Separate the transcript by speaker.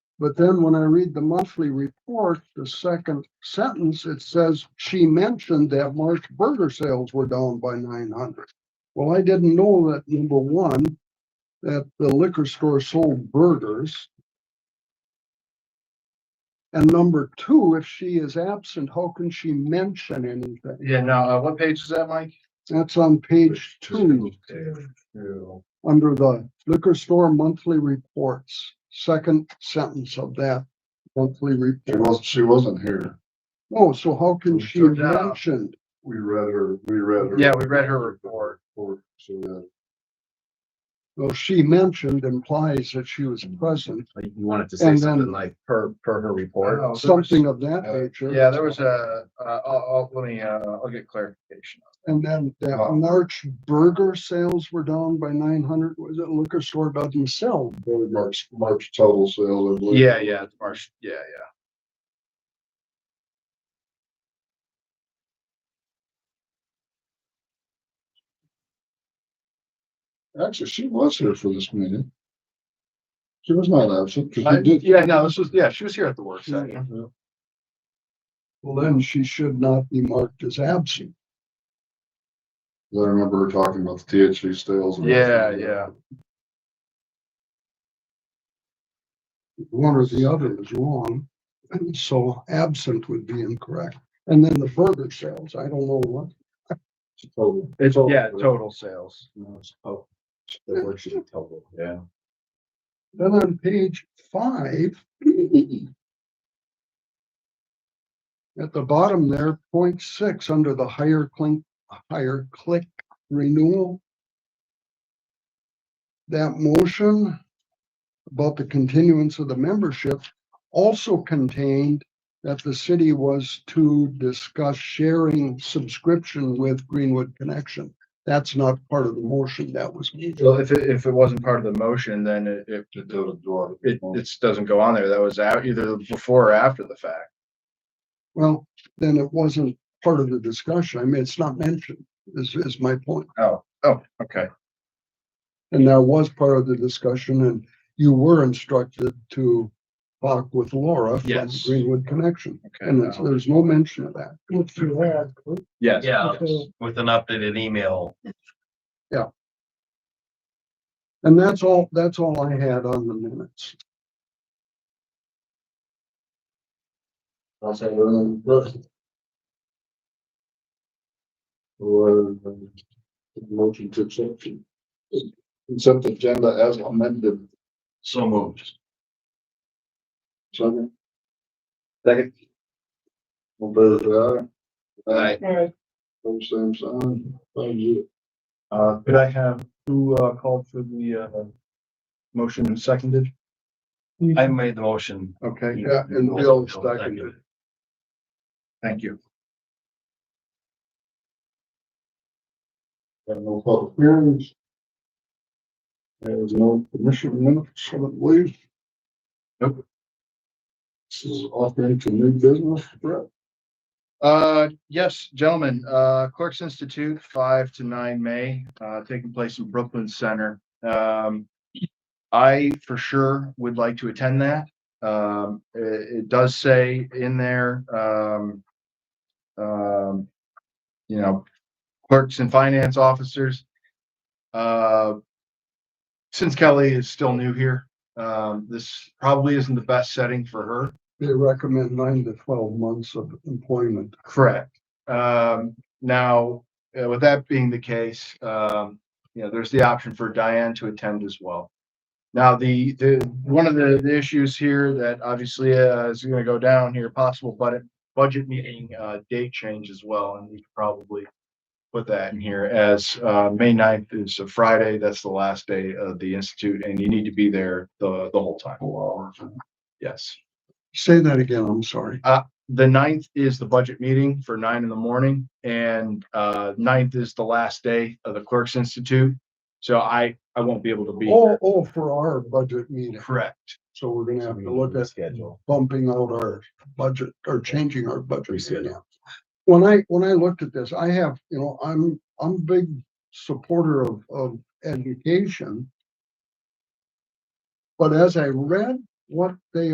Speaker 1: But then when I read the monthly report, the second sentence, it says she mentioned that March burger sales were down by nine hundred. Well, I didn't know that, number one, that the liquor store sold burgers. And number two, if she is absent, how can she mention anything?
Speaker 2: Yeah, now, uh, what page is that, Mike?
Speaker 1: That's on page two,
Speaker 2: Two.
Speaker 1: under the liquor store monthly reports, second sentence of that monthly
Speaker 3: She
Speaker 1: report.
Speaker 3: was, she wasn't here.
Speaker 1: Oh, so how can
Speaker 3: So
Speaker 1: she
Speaker 2: took it out.
Speaker 1: mention?
Speaker 3: We read her, we read her.
Speaker 2: Yeah, we read her report.
Speaker 3: report, so that-
Speaker 1: Well, she mentioned implies that she
Speaker 3: Mm-hmm.
Speaker 1: was present,
Speaker 4: Like, You wanted to
Speaker 1: And
Speaker 4: say
Speaker 1: then-
Speaker 4: something like per, per her report.
Speaker 2: Oh, there was-
Speaker 1: something of that
Speaker 3: uh,
Speaker 1: nature.
Speaker 2: Yeah, there was a, uh, I'll, I'll, let me, uh, I'll get clarification.
Speaker 1: And then the
Speaker 3: Oh.
Speaker 1: March burger sales were down by nine hundred, was it liquor store doesn't sell?
Speaker 3: Probably March, March total sales, I believe.
Speaker 2: Yeah, yeah, it's March, yeah, yeah.
Speaker 3: Actually, she was here for this meeting. She was not absent, because
Speaker 2: I-
Speaker 3: we did.
Speaker 2: Yeah, no, this was, yeah, she was here at the work session.
Speaker 1: Well, then she should not be marked as absent.
Speaker 3: I remember her talking about the THC sales. and-
Speaker 2: Yeah, yeah.
Speaker 1: One or the other is wrong, and so absent would be incorrect. And then the burger sales, I don't know what.
Speaker 4: Total.
Speaker 2: It's, yeah, total sales.
Speaker 4: No, it's total. The word should be total, yeah.
Speaker 1: Then on page five. At the bottom there, point six, under the higher click, higher click renewal. That motion about the continuance of the membership also contained that the city was to discuss sharing subscription with Greenwood Connection. That's not part of the motion that was made.
Speaker 2: Well, if, it- if it wasn't part of the motion, then it, it,
Speaker 3: It doesn't draw
Speaker 2: it,
Speaker 3: it.
Speaker 2: it's doesn't go on there. That was out either before or after the fact.
Speaker 1: Well, then it wasn't part of the discussion. I mean, it's not mentioned, is, is my point.
Speaker 2: Oh, oh, okay.
Speaker 1: And that was part of the discussion and you were instructed to talk with Laura from
Speaker 2: Yes.
Speaker 1: Greenwood Connection.
Speaker 2: Okay.
Speaker 1: And it's-
Speaker 2: now-
Speaker 1: there's no mention of that.
Speaker 2: Yes.
Speaker 5: Yeah,
Speaker 2: yes.
Speaker 5: with an updated email.
Speaker 1: And that's all, that's all I had on the minutes.
Speaker 3: I'll say, um, but- Or, um, Motion to accept. Accept agenda as amended.
Speaker 5: So moved.
Speaker 3: Second. Second. All those aye.
Speaker 2: Aye.
Speaker 3: All same sign. Thank you.
Speaker 2: Uh, could I have who, uh, called for the, uh, motion and seconded?
Speaker 5: I made the motion.
Speaker 2: Okay,
Speaker 3: Yeah, and Bill seconded.
Speaker 2: thank you.
Speaker 3: Got no public hearings. There's no commission minutes, I don't believe.
Speaker 2: Nope.
Speaker 3: This is offering to new business, Brett.
Speaker 2: Uh, yes, gentlemen, uh, Clerks Institute, five to nine May, uh, taking place in Brooklyn Center. Um, I for sure would like to attend that. Um, i- it, does say in there, um, um, you know, clerks and finance officers. Uh, since Kelly is still new here, um, this probably isn't the best setting for her.
Speaker 1: They recommend nine to twelve months of employment.
Speaker 2: Correct. Um, now, uh, with that being the case, um, you know, there's the option for Diane to attend as well. Now, the, the, one of the, the issues here that obviously uh, is gonna go down here, possible budget, budget meeting, uh, date change as well, and we could probably put that in here as, uh, May 9th is a Friday, that's the last day of the institute, and you need to be there the, the whole time. Yes.
Speaker 1: Say that again, I'm sorry.
Speaker 2: the ninth is the budget meeting for nine in the morning and uh ninth is the last day of the clerks institute. So I I won't be able to be
Speaker 1: Oh,
Speaker 2: here.
Speaker 1: oh, for our budget meeting.
Speaker 2: Correct.
Speaker 1: So we're gonna have to look at
Speaker 4: Schedule.
Speaker 1: bumping out our budget or changing our budget.
Speaker 4: Reschedule.
Speaker 1: yeah. When I, when I looked at this, I have, you know, I'm, I'm a big supporter of, of education. But as I read what they